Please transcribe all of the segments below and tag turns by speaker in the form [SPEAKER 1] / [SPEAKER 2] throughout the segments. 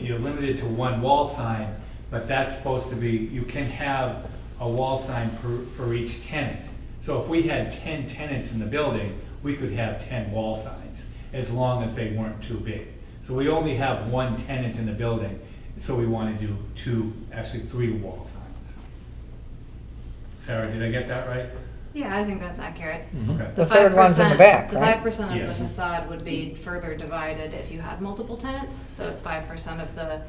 [SPEAKER 1] you're limited to one wall sign, but that's supposed to be, you can have a wall sign for, for each tenant. So if we had ten tenants in the building, we could have ten wall signs, as long as they weren't too big. So we only have one tenant in the building, so we wanna do two, actually three wall signs. Sarah, did I get that right?
[SPEAKER 2] Yeah, I think that's accurate.
[SPEAKER 1] Okay.
[SPEAKER 3] Hmm. The third one's in the back,
[SPEAKER 2] The five
[SPEAKER 3] right?
[SPEAKER 2] percent of the
[SPEAKER 1] Yes.
[SPEAKER 2] facade would be further divided if you had multiple tenants, so it's five percent of the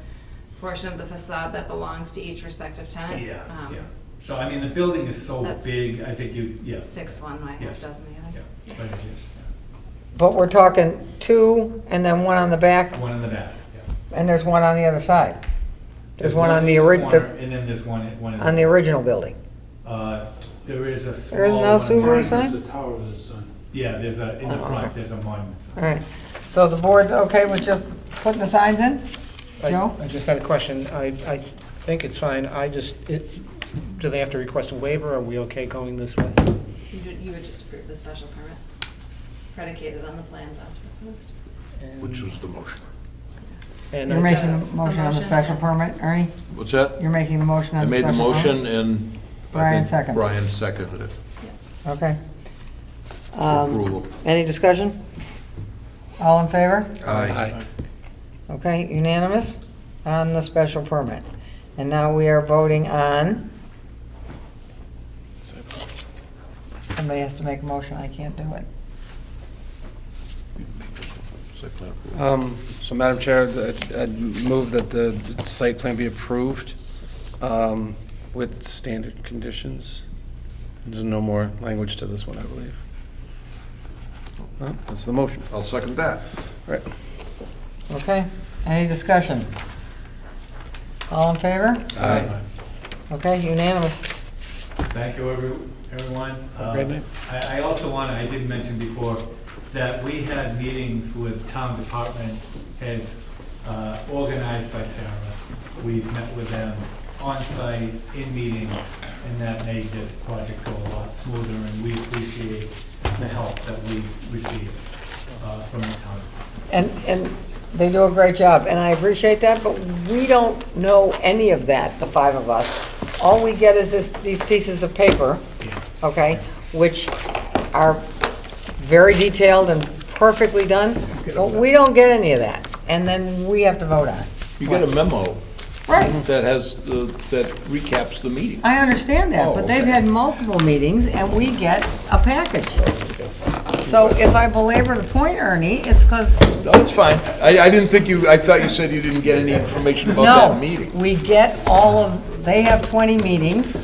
[SPEAKER 2] portion of the facade that belongs to each respective tenant.
[SPEAKER 1] Yeah,
[SPEAKER 2] Um,
[SPEAKER 1] yeah. So I mean, the building is so
[SPEAKER 2] That's-
[SPEAKER 1] big, I think you, yeah,
[SPEAKER 2] Six one, my
[SPEAKER 1] Yeah.
[SPEAKER 2] half dozen the
[SPEAKER 1] yeah.
[SPEAKER 2] other.
[SPEAKER 1] but it is, yeah.
[SPEAKER 3] But we're talking two and then one on the back
[SPEAKER 1] One in the back, yeah.
[SPEAKER 3] and there's one on the other side. There's one on the
[SPEAKER 1] in each
[SPEAKER 3] orig,
[SPEAKER 1] corner,
[SPEAKER 3] the-
[SPEAKER 1] And then there's one, in- one in.
[SPEAKER 3] on the original building.
[SPEAKER 1] Uh, there is a small.
[SPEAKER 3] There is no
[SPEAKER 1] one
[SPEAKER 3] Subaru
[SPEAKER 1] behind-
[SPEAKER 3] sign?
[SPEAKER 4] There's a tower that's on.
[SPEAKER 1] Yeah, there's a, in the
[SPEAKER 3] Oh,
[SPEAKER 1] front,
[SPEAKER 3] okay.
[SPEAKER 1] there's a monument sign.
[SPEAKER 3] All right, so the board's okay with just putting the signs in?
[SPEAKER 5] I-
[SPEAKER 3] Joe?
[SPEAKER 5] I just had a question. I, I think it's fine. I just, it, do they have to request a waiver? Are we okay going this way?
[SPEAKER 2] You would, you would just approve the special permit predicated on the plans as proposed.
[SPEAKER 6] Which was the motion.
[SPEAKER 5] And
[SPEAKER 3] You're
[SPEAKER 5] I-
[SPEAKER 3] making the motion on the special permit, Ernie?
[SPEAKER 6] What's that?
[SPEAKER 3] You're making the motion
[SPEAKER 6] I
[SPEAKER 3] on the
[SPEAKER 6] made the
[SPEAKER 3] special permit?
[SPEAKER 6] motion and. I
[SPEAKER 3] Brian
[SPEAKER 6] think
[SPEAKER 3] seconded.
[SPEAKER 6] Brian seconded it.
[SPEAKER 3] Okay.
[SPEAKER 6] Approval.
[SPEAKER 3] Um, Any discussion? All in favor?
[SPEAKER 6] Aye.
[SPEAKER 3] Okay, unanimous on the special permit. And now we are voting on, somebody has to make a motion, I can't do it.
[SPEAKER 6] Site plan approval.
[SPEAKER 7] Um, So Madam Chair, I'd- I'd move that the site plan be approved um, with standard conditions. There's no more language to this one, I believe. No, That's the motion.
[SPEAKER 6] I'll second that.
[SPEAKER 7] Right.
[SPEAKER 3] Okay, any discussion? All in favor?
[SPEAKER 6] Aye.
[SPEAKER 3] Okay, unanimous.
[SPEAKER 1] Thank you, every- everyone.
[SPEAKER 5] a great
[SPEAKER 1] Um,
[SPEAKER 5] night.
[SPEAKER 1] I I also want, to I did mention before, that we had meetings with town department heads uh, organized by Sarah. We've met with them on-site, in meetings, and that made this project go a lot smoother, and we appreciate the help that we received uh, from the town.
[SPEAKER 3] And, and they do a great job, and I appreciate that, but we don't know any of that, the five of us. All we get is this, these pieces of paper, okay, which are very detailed and perfectly done, but we don't get any of that, and then we have to vote on it.
[SPEAKER 6] You get a memo
[SPEAKER 3] Right,
[SPEAKER 6] that has, the that recaps the meeting.
[SPEAKER 3] I understand that, but they've had multiple meetings, and we get a package. So if I belabor the point, Ernie, it's because
[SPEAKER 6] No, it's fine. I, I didn't think you, I thought you said you didn't get any information about that meeting.
[SPEAKER 3] No, we get all of, they have 20 meetings,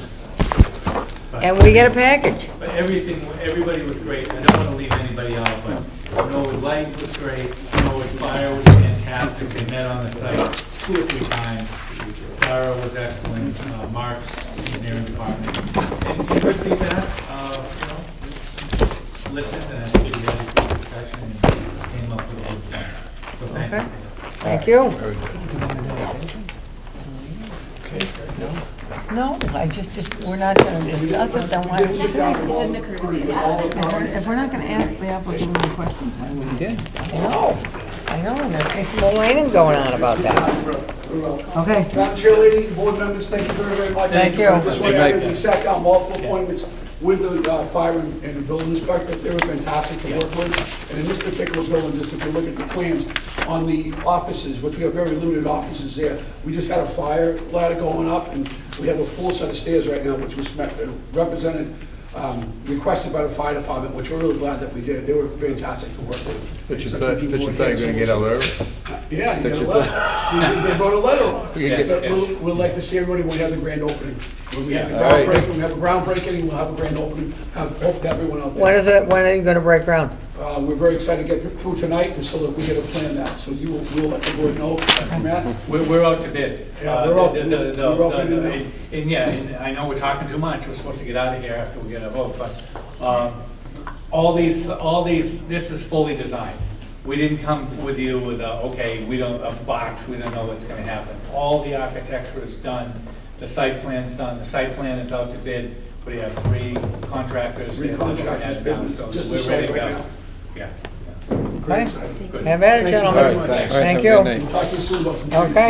[SPEAKER 3] and we get a package.
[SPEAKER 1] But everything, everybody was great, I don't want to leave anybody out, but Norwood Light was great, Norwood Fire was fantastic, they met on the site two or three times. Sarah was excellent, uh, Mark's engineering department, and you heard feedback, uh, you know, listened, and I think we had a good discussion and came up with a good plan. So thank you.
[SPEAKER 3] Okay. Thank you. No, I just, if we're not going to discuss it, then why?
[SPEAKER 2] It didn't occur to me.
[SPEAKER 3] If we're not going to ask the applicant any questions, why would we do? I know, I know, and there's some complaining going on about that. Okay.
[SPEAKER 8] Madam Chair, lady, board members, thank you very, very much.
[SPEAKER 3] Thank you.
[SPEAKER 8] I just want everybody, we sat down multiple appointments with the uh, fire and and the building inspector. They were fantastic to work with. And in this particular building, just if you look at the plans on the offices, which we have very limited offices there, we just had a fire ladder going up, and we have a full set of stairs right now, which was met- uh, represented, um, requested by the fire department, which we're really glad that we did. They were fantastic to work with.
[SPEAKER 6] That you
[SPEAKER 8] It's
[SPEAKER 6] thought,
[SPEAKER 8] like
[SPEAKER 6] that
[SPEAKER 8] we do
[SPEAKER 6] you
[SPEAKER 8] more
[SPEAKER 6] thought you were
[SPEAKER 8] things.
[SPEAKER 6] gonna get out of there.
[SPEAKER 8] Yeah, you
[SPEAKER 6] That
[SPEAKER 8] got a
[SPEAKER 6] you
[SPEAKER 8] letter. They- They wrote a letter on it.
[SPEAKER 6] You can
[SPEAKER 1] Yeah.
[SPEAKER 6] get-
[SPEAKER 8] But we'll, we'll like to see everybody when we have the grand opening. When we have the
[SPEAKER 6] Yeah. All right.
[SPEAKER 8] groundbreaking, we have a groundbreaking, we'll have a grand opening, have, hope that everyone out
[SPEAKER 3] When
[SPEAKER 8] there.
[SPEAKER 3] is it, when are you going to break ground?
[SPEAKER 8] Uh, we're very excited to get through tonight, and so that we get a plan that, so you will, we'll let the board know, Matt.
[SPEAKER 1] We're, we're out to bid.
[SPEAKER 8] Yeah,
[SPEAKER 1] Uh,
[SPEAKER 8] we're out-
[SPEAKER 1] the- the- the-
[SPEAKER 8] we're out to
[SPEAKER 1] the-
[SPEAKER 8] bid now.
[SPEAKER 1] And yeah, and I know we're talking too much, we're supposed to get out of here after we get a vote, but, um, all these, all these, this is fully designed. We didn't come with you with a, okay, we don't, a box, we don't know what's gonna happen. All the architecture is done, the site plan's done, the site plan is out to bid, we have three contractors.
[SPEAKER 8] Three
[SPEAKER 1] that are looking at
[SPEAKER 8] contractors
[SPEAKER 1] it now,
[SPEAKER 8] bidding,
[SPEAKER 1] so
[SPEAKER 8] just
[SPEAKER 1] we're
[SPEAKER 8] the site
[SPEAKER 1] ready to
[SPEAKER 8] right
[SPEAKER 1] go.
[SPEAKER 8] now.
[SPEAKER 1] Yeah.
[SPEAKER 3] Okay.
[SPEAKER 8] Excited.
[SPEAKER 3] Have at it,
[SPEAKER 8] Thank you
[SPEAKER 3] gentlemen.
[SPEAKER 8] very much.
[SPEAKER 3] Thank
[SPEAKER 7] All right, have a good
[SPEAKER 3] you.
[SPEAKER 7] night.
[SPEAKER 8] Talk to you soon about some trees.
[SPEAKER 3] Okay.